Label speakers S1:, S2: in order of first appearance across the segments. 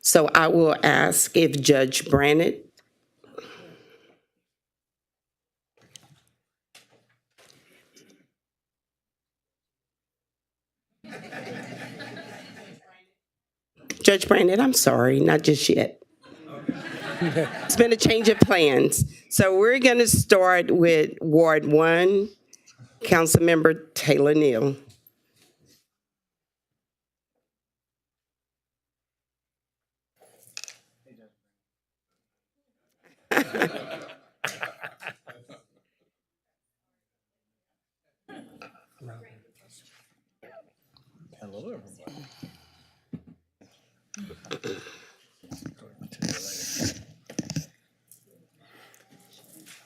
S1: So I will ask if Judge Brannon Judge Brandon, I'm sorry, not just yet. It's been a change of plans. So we're going to start with Ward One, Councilmember Taylor Neal.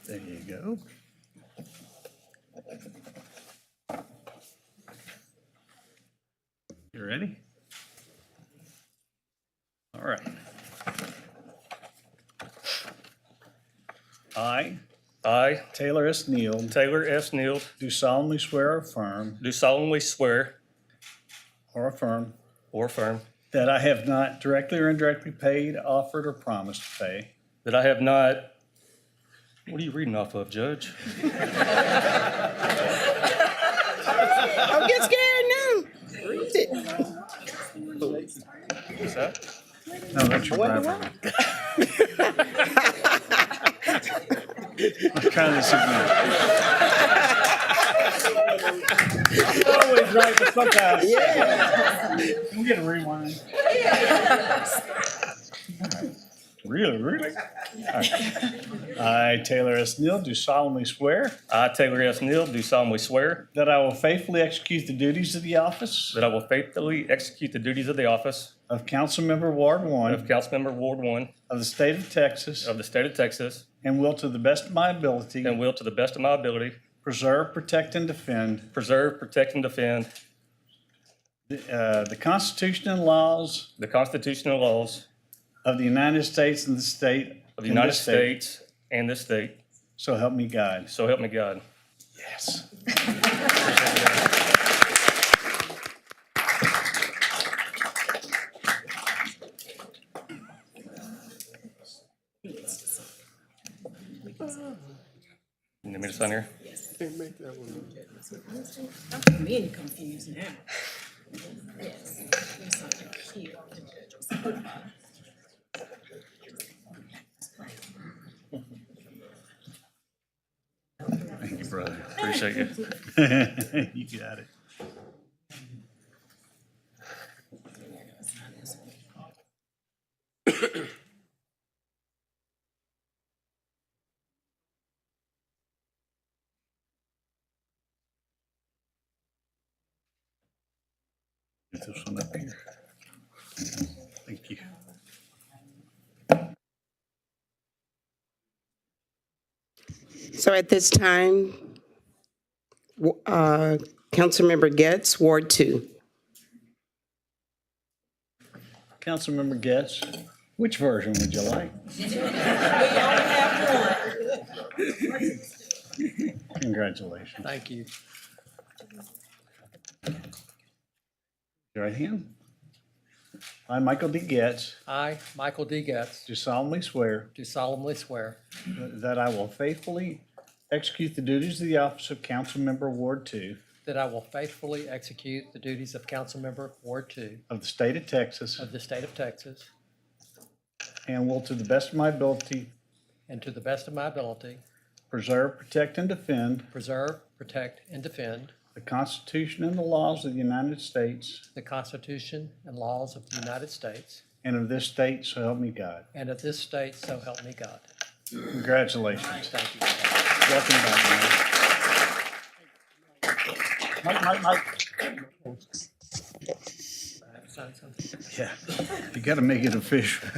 S2: There you go. You ready? All right. I,
S3: I,
S2: Taylor S. Neal,
S3: Taylor S. Neal,
S2: do solemnly swear or affirm,
S3: do solemnly swear
S2: or affirm,
S3: or affirm
S2: that I have not directly or indirectly paid, offered, or promised to pay
S3: that I have not, what are you reading off of, Judge?
S1: Don't get scared now. Read it.
S3: What's that?
S2: No, that's your Bible. I kind of disagree. Always right the fuck out. Yeah. I'm gonna rewind. Really, really? All right. I, Taylor S. Neal, do solemnly swear
S3: I, Taylor S. Neal, do solemnly swear
S2: that I will faithfully execute the duties of the office
S3: that I will faithfully execute the duties of the office
S2: of Councilmember Ward
S3: of
S2: One
S3: Councilmember Ward One
S2: of the state of Texas
S3: of the state of Texas
S2: and will to the best of my ability
S3: and will, to the best of my ability,
S2: preserve, protect, and defend
S3: preserve, protect, and defend
S2: Uh, the Constitution and laws
S3: the constitutional laws
S2: of the United States and the state.
S3: of the United States and this state.
S2: So help me God.
S3: So help me God.
S2: Yes.
S3: You need me to sign here?
S4: I'm being confused now. Yes. There's something here.
S2: Thank you, brother.
S3: Appreciate you.
S2: You got it. Get this one up here. Thank you.
S1: So at this time, w- uh, Councilmember Getz, Ward Two.
S2: Councilmember Getz, which version would you like? Congratulations.
S5: Thank you.
S2: Your right hand. I, Michael D. Getz,
S5: I, Michael D. Getz,
S2: do solemnly swear
S5: do solemnly swear
S2: that I will faithfully execute the duties of the office of council member Ward Two
S5: that I will faithfully execute the duties of Councilmember Ward Two
S2: of the state of Texas
S5: of the state of Texas
S2: and will to the best of my ability
S5: and to the best of my ability
S2: preserve, protect, and defend
S5: preserve, protect, and defend
S2: the Constitution and the laws of the United States
S5: the Constitution and laws of the United States
S2: and of this state, so help me God.
S5: and of this state, so help me God.
S2: Congratulations.
S5: Thank you.
S2: Welcome back, man. Mike, Mike, Mike.
S5: Sign something.
S2: Yeah, you gotta make it official.